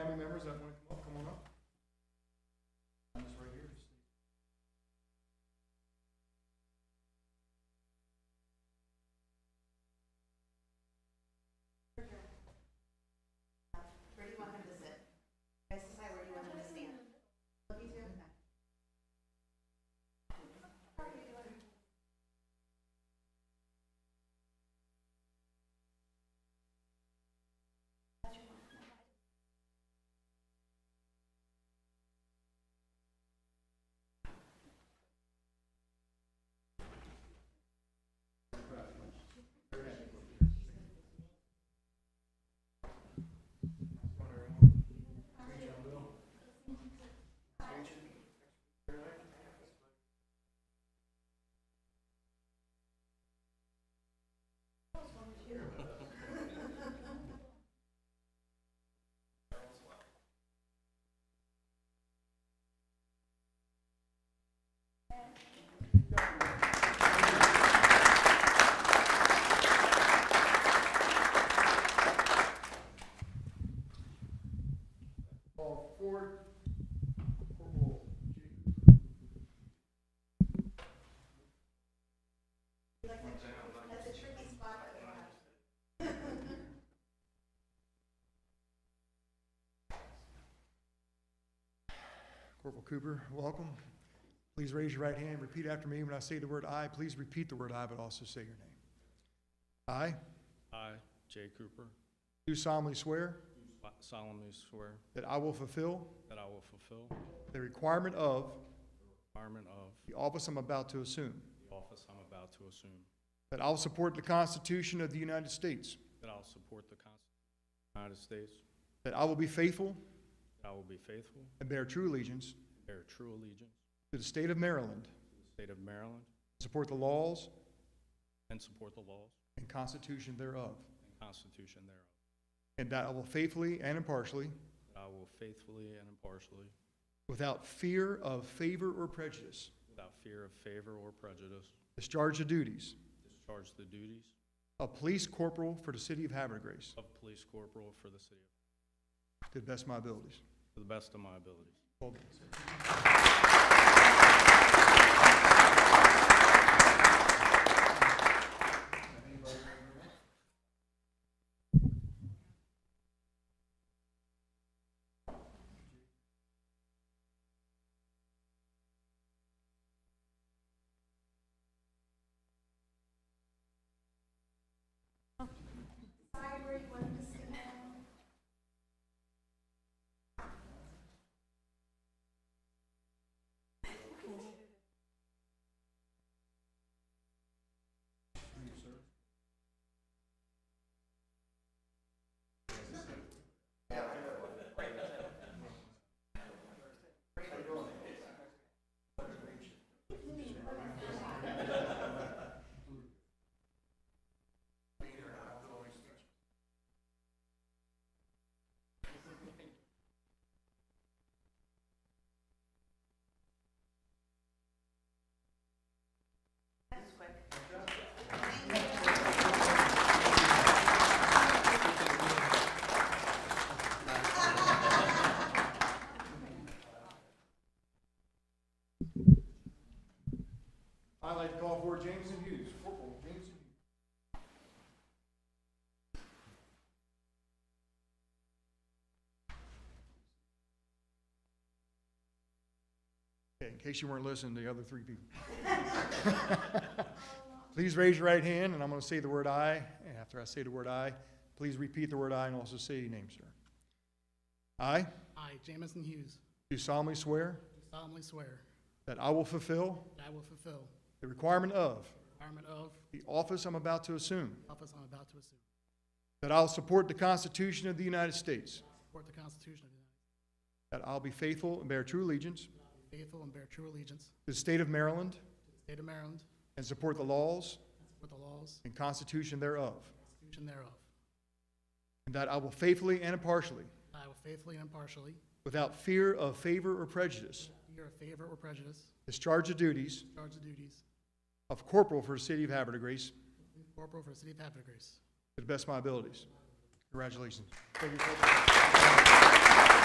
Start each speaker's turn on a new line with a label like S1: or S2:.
S1: that wanna come up, come on up. I'm just right here. just-
S2: Where do you want him to sit? Guys, decide where you want him to stand. Look, he's doing that.
S1: Paul Ford, Corporal Jake.
S2: That's a tricky spot that we have.
S1: Corporal Cooper, welcome. Please raise your right hand, repeat after me. When I say the word "I," please repeat the word "I," but also say your name. I
S3: I, Jay Cooper,
S1: do solemnly swear
S3: solemnly swear
S1: that I will fulfill
S3: that I will fulfill
S1: the requirement of
S3: the requirement of
S1: the office I'm about to assume,
S3: the office I'm about to assume,
S1: that I will support the Constitution of the United States,
S3: that I will support the Constitution of the United States,
S1: that I will be faithful
S3: that I will be faithful,
S1: and bear true allegiance
S3: bear true allegiance
S1: to the state of Maryland,
S3: to the state of Maryland,
S1: support the laws
S3: and support the laws
S1: and constitution thereof,
S3: and Constitution thereof,
S1: and that I will faithfully and impartially,
S3: that I will faithfully and impartially,
S1: without fear of favor or prejudice,
S3: without fear of favor or prejudice,
S1: discharge the duties
S3: discharge the duties
S1: of police corporal for the city of Havertide Grace
S3: of police corporal for the city of-
S1: to the best of my abilities.
S3: to the best of my abilities.
S1: Well done, sir.
S2: Decide where you want him to stand. That was quick.
S1: I'd like to call for Jameson Hughes, Corporal Jameson Hughes. Okay, in case you weren't listening to the other three people. Please raise your right hand, and I'm going to say the word "I." And after I say the word "I," please repeat the word "I" and also say your name, sir. I
S4: I, Jamison Hughes,
S1: do solemnly swear
S4: do solemnly swear
S1: that I will fulfill
S4: that I will fulfill
S1: the requirement of
S4: the requirement of
S1: the office I'm about to assume,
S4: the office I'm about to assume,
S1: That I will support the Constitution of the United States.
S4: support the Constitution of the United
S1: That I'll be faithful and bear true allegiance
S4: States, be faithful and bear true allegiance
S1: to the state of Maryland
S4: to the state of Maryland,
S1: and support the laws
S4: and support the laws
S1: and Constitution thereof.
S4: and Constitution thereof.
S1: And that I will faithfully and impartially,
S4: I will faithfully and impartially,
S1: without fear of favor or prejudice,
S4: hear of favor or prejudice,
S1: discharge the duties
S4: discharge the duties
S1: of corporal for the city of Havertide Grace to
S4: of corporal for the city of Havertide Grace.
S1: the best of my abilities. Congratulations.